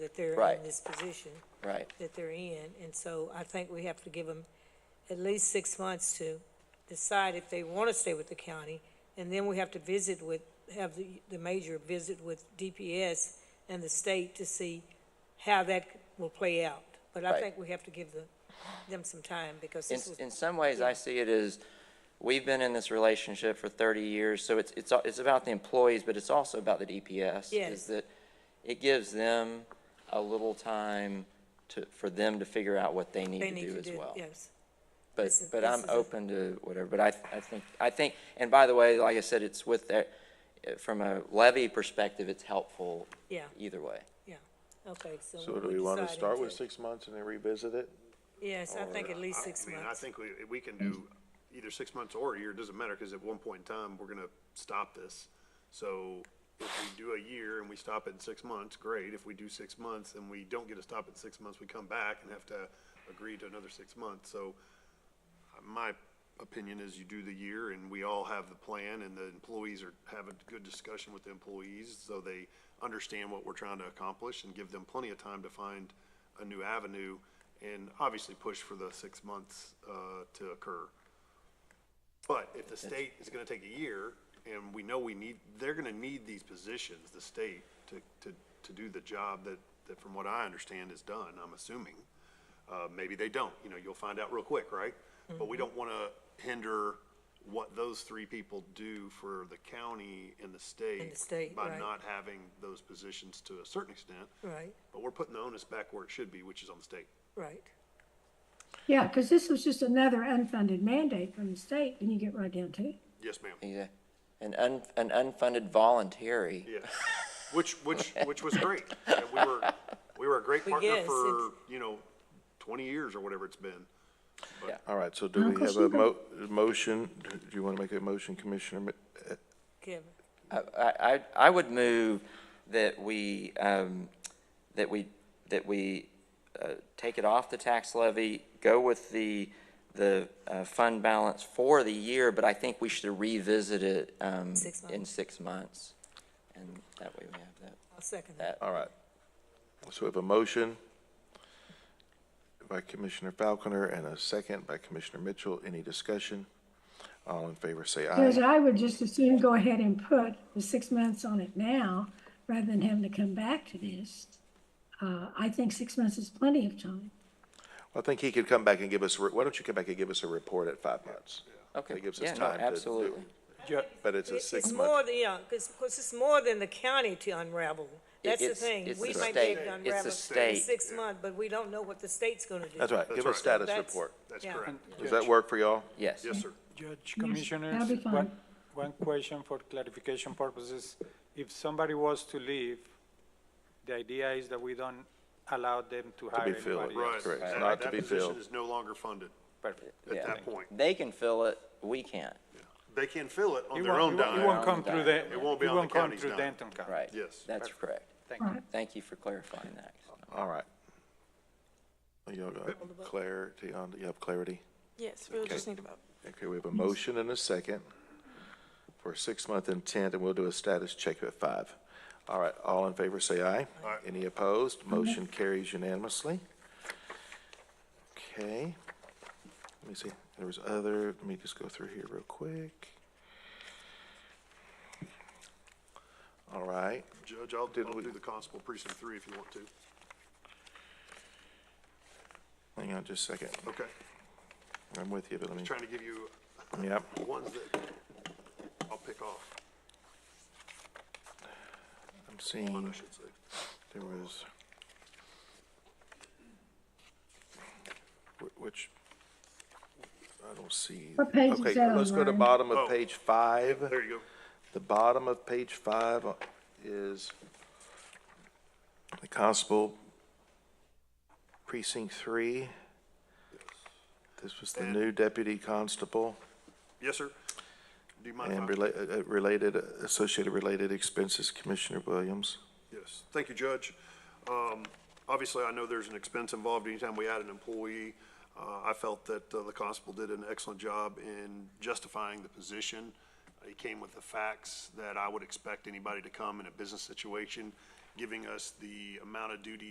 that they're in Right. this position right? that they're in. And so I think we have to give them at least six months to decide if they want to stay with the county. And then we have to visit with, have the, the major visit with DPS and the state to see how that will play out. But I Right. think we have to give the, them some time because In, this was, in some ways, I see it as, we've been in this relationship for 30 years, so it's, it's, it's about the employees, but it's also about the DPS. Yes. Is that it gives them a little time to, for them to figure out what they need they to need do to as do, well. yes. But, This is- but this I'm is a- open to whatever, but I, I think, I think, and by the way, like I said, it's with that, from a levy perspective, it's helpful. Yeah. Either way. Okay, so. So do we want to decide start into- with six months and then revisit it? Yes, I think at least I- six I mean, months. I think we, we can do either six months or a year, it doesn't matter, because at one point in time, we're gonna stop this. So if we do a year and we stop at six months, great. If we do six months and we don't get to stop at six months, we come back and have to agree to another six months. So uh, my opinion is you do the year and we all have the plan and the employees are, have a good discussion with the employees so they understand what we're trying to accomplish and give them plenty of time to find a new avenue and obviously push for the six months, uh, to occur. But if the state is gonna take a year and we know we need, they're gonna need these positions, the state, to, to, to do the job that, that from what I understand is done, I'm assuming. Uh, maybe they don't, you know, you'll find out real quick, right? But we don't wanna hinder what those three people do for the county and the state. state, By right. not having those positions to a certain extent. Right, But we're putting the onus back where it should be, which is on the state. right. Yeah, because this was just another unfunded mandate from the state, and you get right down to it. Yes, ma'am. Yeah. An un, an unfunded voluntary. Yeah, which, which, which was great. And we were, we were a great But partner yes, for, it's- you know, twenty years or whatever it's been. All right, so do we Uncle have a mo, motion? Do you want to make a motion, Commissioner? Mi- uh, Kevin, I, I, I would move that we, um, that we, that we, uh, take it off the tax levy, go with the, the, uh, fund balance for the year, but I think we should revisit it, um, Six in months. six months. And that way we have that. I'll second that. All right. So we have a motion by Commissioner Falconer and a second by Commissioner Mitchell. Any discussion? All in favor, say aye. Because I would just as soon go ahead and put the six months on it now, rather than having to come back to this. Uh, I think six months is plenty of time. I think he could come back and give us, a re- why don't you come back and give us a report at five months? Okay. That gives Yeah, us no, time to do it. absolutely. But it's a It's six-month, more than, yeah, because, it's more than the county to unravel. That's the it's- thing. it's We the might be able state. to It's the unravel in state. six months, but we don't know what the state's gonna do. that's right, give us status That's- report. That's Yeah. correct. Does that work for y'all? Yes. Yes, sir. Judge, Yes, commissioners, that'll be fine. one, one question for clarification purposes. If somebody was to leave, the idea is that we don't allow them to To be hire filled, anybody Right. else. correct, That- not to that be position filled. Is no longer funded Perfect. at Yeah. that point. They can fill it, we can't. They can fill it on It their won't- own it won't- dime. It won't come through the, It won't be it on the won't come county's through dime. Denton County. Right. Yes. That's correct. Thank you. Right. Thank you for clarifying that. All right. Y'all got clarity on, you have clarity? Yes, we'll just need a vote. Okay, we have a motion and a second for a six-month intent, and we'll do a status check at five. All right, all in favor, say aye. Aye. Any opposed? Motion carries unanimously. Okay. Let me see, there was other, let me just go through here real quick. All right, Judge, I'll, Did I'll we- do the constable precinct three if you want to. hang on just a second. Okay. I'm with you, but let me, Trying to give you yep. ones that I'll pick off, I'm one I seeing, should say. there was. Wh- Which, I don't see. What page is Okay, that on, let's go to Ryan? bottom of Oh. page five. There you go. The bottom of page five uh, is the constable precinct three. This was the new deputy constable Yes, sir. Do you mind? if I- and rela- uh, uh, related, associated related expenses, Commissioner Williams. Yes, thank you, Judge. Um, Obviously, I know there's an expense involved anytime we add an employee. Uh, I felt that uh, the constable did an excellent job in justifying the position. He came with the facts that I would expect anybody to come in a business situation, giving us the amount of duty